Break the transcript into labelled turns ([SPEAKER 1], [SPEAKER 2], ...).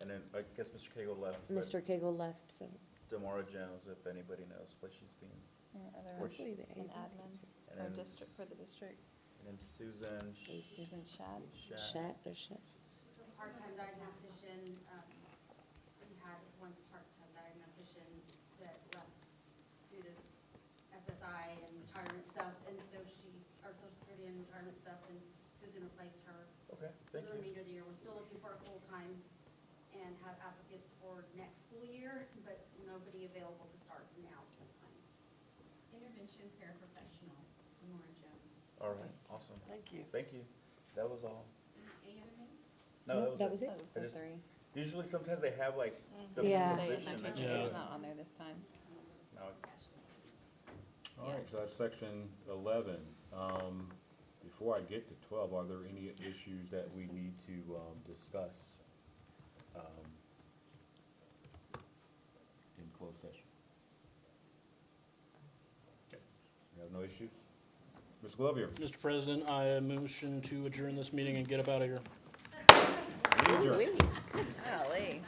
[SPEAKER 1] then I guess Mr. Cagle left. but
[SPEAKER 2] Mr. Cagle left, so.
[SPEAKER 1] Demora Jones, if anybody knows what she's been.
[SPEAKER 3] And
[SPEAKER 1] Or
[SPEAKER 3] other,
[SPEAKER 1] she-
[SPEAKER 3] an admin
[SPEAKER 1] And
[SPEAKER 3] for
[SPEAKER 1] then
[SPEAKER 3] district, for the district,
[SPEAKER 1] And then Susan Sh-
[SPEAKER 3] Susan Shad.
[SPEAKER 1] Shat.
[SPEAKER 2] Shat or Shat?
[SPEAKER 4] part-time diagnostician, um, we had one part-time diagnostician that left due to SSI and retirement stuff, and so she, or social security and retirement stuff, and Susan replaced her.
[SPEAKER 1] Okay,
[SPEAKER 4] For the
[SPEAKER 1] thank you.
[SPEAKER 4] remainder of the year, we're still looking for a full-time and have applicants for next school year, but nobody available to start now full-time. Intervention paraprofessional, Demora Jones.
[SPEAKER 1] All right, awesome.
[SPEAKER 5] Thank you.
[SPEAKER 1] Thank you. That was all.
[SPEAKER 4] Any other names?
[SPEAKER 1] No, Mm-hmm, that was it.
[SPEAKER 2] it.
[SPEAKER 3] Oh,
[SPEAKER 1] I just- Usually sometimes they have like the
[SPEAKER 2] Yeah.
[SPEAKER 1] position.
[SPEAKER 3] Mm-hmm. My
[SPEAKER 1] I
[SPEAKER 3] attention
[SPEAKER 1] think.
[SPEAKER 3] is not on there this time.
[SPEAKER 1] Now,
[SPEAKER 6] All right, so that's section eleven. Um, before I get to twelve, are there any issues that we need to, um, discuss? um, In closed session? You have no issues? Mr. Glover?
[SPEAKER 7] Mr. President, I motion to adjourn this meeting and get up out of here.
[SPEAKER 6] Adjourn.
[SPEAKER 5] Golly.